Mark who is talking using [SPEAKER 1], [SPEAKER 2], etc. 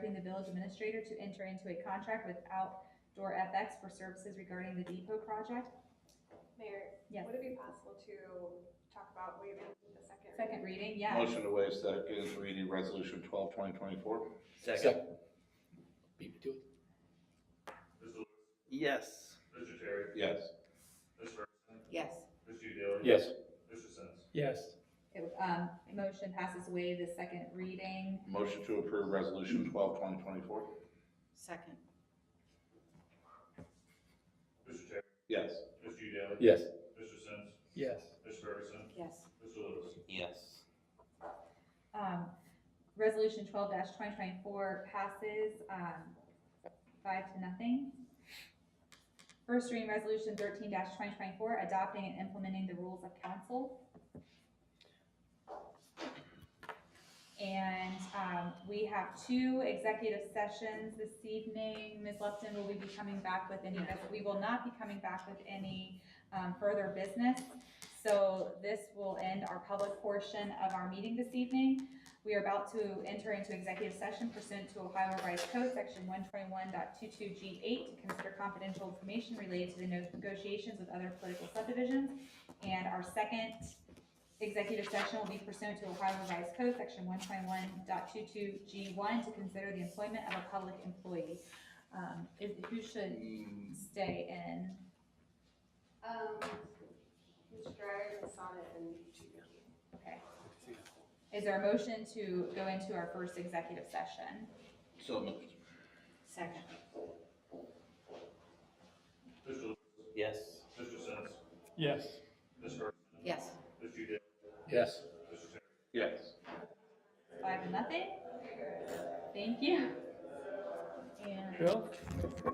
[SPEAKER 1] authorizing the village administrator to enter into a contract with Outdoor FX for services regarding the depot project.
[SPEAKER 2] Mayor,
[SPEAKER 1] Yes.
[SPEAKER 2] would it be possible to talk about waiving the second?
[SPEAKER 1] Second reading, yeah.
[SPEAKER 3] Motion to waive second reading, resolution twelve, twenty twenty-four?
[SPEAKER 4] Second.
[SPEAKER 5] Beat me to it.
[SPEAKER 6] Mr. Lewis,
[SPEAKER 4] Yes.
[SPEAKER 6] Mr. Terry,
[SPEAKER 3] Yes.
[SPEAKER 6] Mr. Ferguson,
[SPEAKER 7] yes,
[SPEAKER 6] Mr. Daly.
[SPEAKER 5] Yes.
[SPEAKER 6] Mr. Sins.
[SPEAKER 5] Yes.
[SPEAKER 1] It, Um, motion passes waive the second reading.
[SPEAKER 3] Motion to approve resolution twelve, twenty twenty-four?
[SPEAKER 7] second,
[SPEAKER 6] Mr. Terry,
[SPEAKER 3] Yes.
[SPEAKER 6] Mr. Daly.
[SPEAKER 5] Yes.
[SPEAKER 6] Mr. Sins,
[SPEAKER 5] Yes.
[SPEAKER 6] Mr. Ferguson,
[SPEAKER 7] yes,
[SPEAKER 6] Mr. Lewis.
[SPEAKER 4] Yes.
[SPEAKER 1] Um, resolution twelve twenty twenty-four passes, um, five to nothing. First reading resolution thirteen twenty twenty-four, adopting and implementing the rules of council. And, um, we have two executive sessions this evening. Ms. Lupton, will we be coming back with any, we will not be coming back with any, um, further business. So this will end our public portion of our meeting this evening. We are about to enter into executive session pursuant to Ohio Revised Code, section one twenty-one G eight, to consider confidential information related to the negotiations with other political subdivisions. And our second executive session will be pursuant to Ohio Revised Code, section one twenty-one G one, to consider the employment of a public employee. Um, is, who should
[SPEAKER 3] Mm,
[SPEAKER 1] stay in?
[SPEAKER 2] Um, Mr. Dryer, Ms. Sonnet, and Chief.
[SPEAKER 1] Okay. Is there a motion to go into our first executive session?
[SPEAKER 3] So moved.
[SPEAKER 7] second,
[SPEAKER 6] Mr. Lewis,
[SPEAKER 4] Yes.
[SPEAKER 6] Mr. Sins,
[SPEAKER 5] Yes.
[SPEAKER 6] Mr. Ferguson,
[SPEAKER 7] yes.
[SPEAKER 6] Mr. Daly,
[SPEAKER 5] Yes.
[SPEAKER 6] Mr. Terry.
[SPEAKER 3] Yes.
[SPEAKER 1] Five to nothing? Thank you. And.
[SPEAKER 5] Bill?